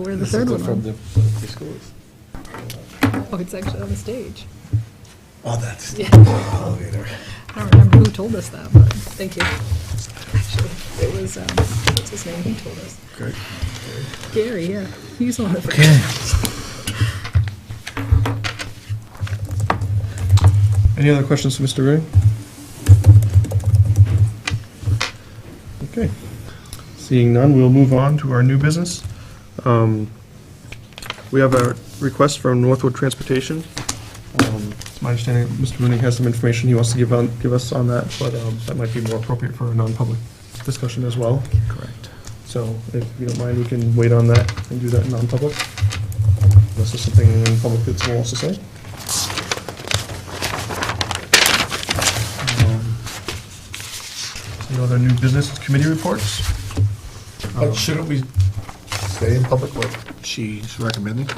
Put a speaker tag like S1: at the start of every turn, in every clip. S1: We're the third one.
S2: From
S1: on.
S2: the, the schools.
S1: Oh, it's actually on the stage.
S2: Oh, that's the
S1: Yeah.
S2: elevator.
S1: I don't remember who told us that, but thank you. Actually, it was, um, what's his name? He told us.
S2: Great.
S1: Gary, yeah. He's on the,
S2: Okay.
S3: Any other questions for Mr. Ray? Okay. Seeing none, we'll move on to our new business. Um, We have a request from Northwood Transportation. Um, It's my understanding that Mr. Rooney has some information he wants to give on, give us on that, but um, that might be more appropriate for a non-public discussion as well.
S2: Correct.
S3: So if you don't mind, we can wait on that and do that in non-public. Unless there's something in public that someone wants to say. Um, Any other new business committee reports?
S2: But shouldn't we say in public what she's recommending?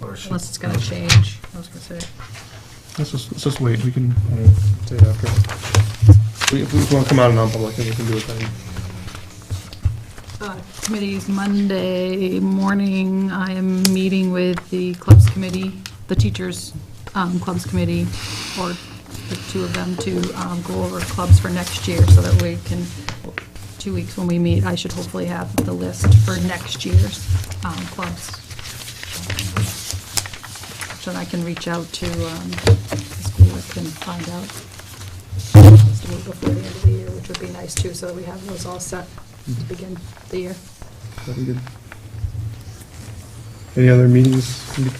S2: Or she-
S1: unless it's gonna change, I was gonna say.
S3: Let's just, let's just wait, we can uh, say it after. We- If we want to come out in non-public, then we can do it then.
S1: Uh, Committees, Monday morning, I am meeting with the clubs committee, the teachers' um, clubs committee, or the two of them, to um, go over clubs for next year, so that we can, two weeks when we meet, I should hopefully have the list for next year's um, clubs. So I can reach out to um, the school and find out. Supposed to meet Before the end of the year, which would be nice, too, so that we have those all set to begin the year.
S3: That'd be good. Any other meetings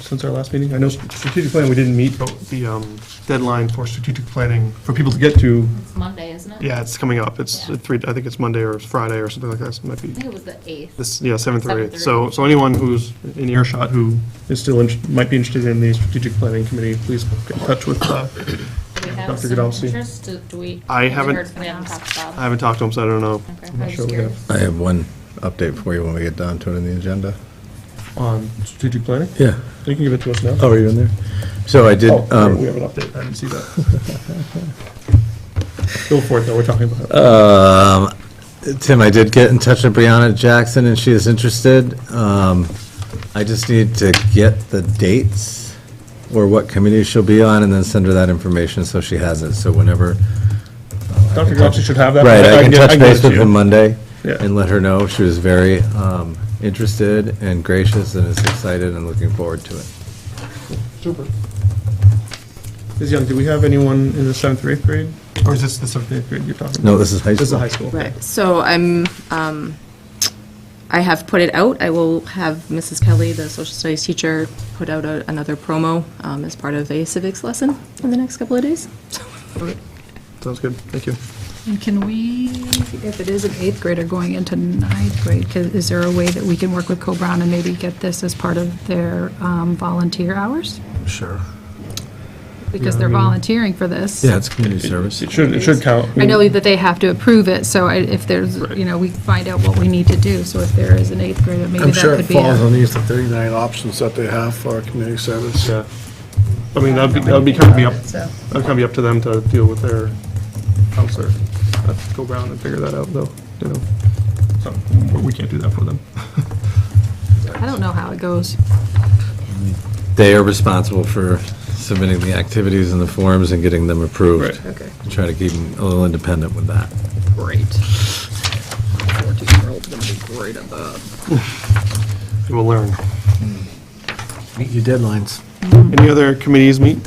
S3: since our last meeting? I know strategic plan, we didn't meet, but the um, deadline for strategic planning, for people to get to,
S4: It's Monday, isn't it?
S3: yeah, it's coming up. It's
S4: Yeah.
S3: at three, I think it's Monday or Friday or something like that, so it might
S4: I
S3: be,
S4: think it was the 8th.
S3: this, yeah, 7th or 8th.
S4: Seventh or
S3: So,
S4: eighth.
S3: so anyone who's in earshot who is still, in- might be interested in the strategic planning committee, please get in touch with, uh,
S4: Do we have
S3: Dr.
S4: some
S3: Godofsky.
S4: interest? Do- Do we?
S3: I haven't-
S4: We haven't talked
S3: I
S4: about.
S3: haven't talked to him, so I don't know.
S4: Okay,
S3: I'm
S4: I
S3: not
S4: was
S3: sure we
S4: curious.
S3: have-
S5: I have one update for you when we get down to it in the agenda.
S3: On strategic planning?
S5: Yeah.
S3: You can give it to us now.
S5: Oh, are you in there? So I did,
S3: Oh, sorry, we
S5: um,
S3: have an update, I didn't see that. Go for it, though, we're talking about it.
S5: um, Tim, I did get in touch with Brianna Jackson, and she is interested. Um, I just need to get the dates or what committee she'll be on, and then send her that information so she has it, so whenever.
S3: Dr. Gopsi should have that.
S5: Right, I can
S3: get-
S5: touch
S3: get it
S5: base
S3: to
S5: with
S3: you.
S5: him uh, Monday
S3: Yeah.
S5: and let her know. She was very um, interested and gracious and is excited and looking forward to it.
S3: Super. Ms. Young, do we have anyone in the seventh or eighth grade? Or is this the seventh and eighth grade you're talking about?
S5: No, this is high school.
S3: This is the high school.
S6: Right, so I'm, um, I have put it out, I will have Mrs. Kelly, the social studies teacher, put out a- another promo um, as part of a civics lesson in the next couple of days.
S3: Sounds good, thank you.
S1: And can we, if it is an eighth grader going into ninth grade, ca- is there a way that we can work with Co-Brown and maybe get this as part of their um, volunteer hours?
S5: Sure.
S1: Because they're volunteering for this.
S5: Yeah, it's community service.
S3: It should, it should count.
S1: I know that they have to approve it, so I- if there's,
S3: Right.
S1: you know, we find out what we need to do. So if there is an eighth grader, maybe
S2: I'm sure
S1: that
S2: it
S1: could be. a-
S2: falls underneath the 39 options that they have for community service.
S3: Yeah. I mean, that'd be, that'd be kind of be up,
S1: So-
S3: that'd kind of be up to them to deal with their counselor. Let's go around and figure that out, though, you know. So, we- we can't do that for them.
S1: I don't know how it goes.
S5: They are responsible for submitting the activities and the forms and getting them approved.
S3: Right.
S1: Okay.
S5: Try to keep them a little independent with that.
S1: Great. Fourteen-year-old's gonna be great at that.
S3: They will learn.
S2: Meet your deadlines.
S3: Any other committees meet?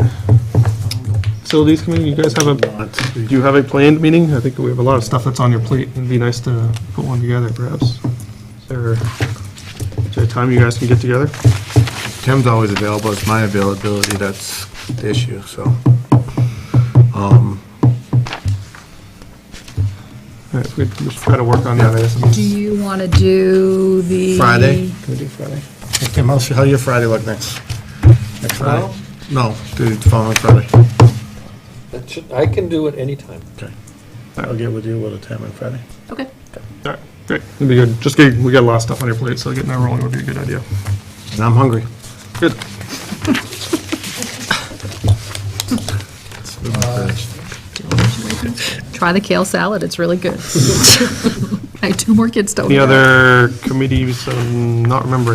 S3: Facilities committee, you guys have a, do you have a planned meeting? I think we have a lot of stuff that's on your plate, it'd be nice to put one together perhaps. Is there, is there a time you guys can get together?
S2: Tim's always available, it's my availability that's the issue, so. Um,
S3: All right, we we should try to work on that, I guess.
S1: Do you wanna do the?
S2: Friday?
S3: Can we do Friday?
S2: hey, Tim, how's your- how your Friday look next? Next Friday? No, the following Friday.
S7: That should, I can do it anytime.
S2: Okay. I'll get with you what a time on Friday.
S6: Okay.
S3: All right, great, that'd be good, just get, we got a lot of stuff on your plate, so getting that rolling would be a good idea.
S2: And I'm hungry.
S3: Good.
S1: Try the kale salad, it's really good. I had two more kids told me
S3: Any
S1: that.
S3: other committees, I'm not remembering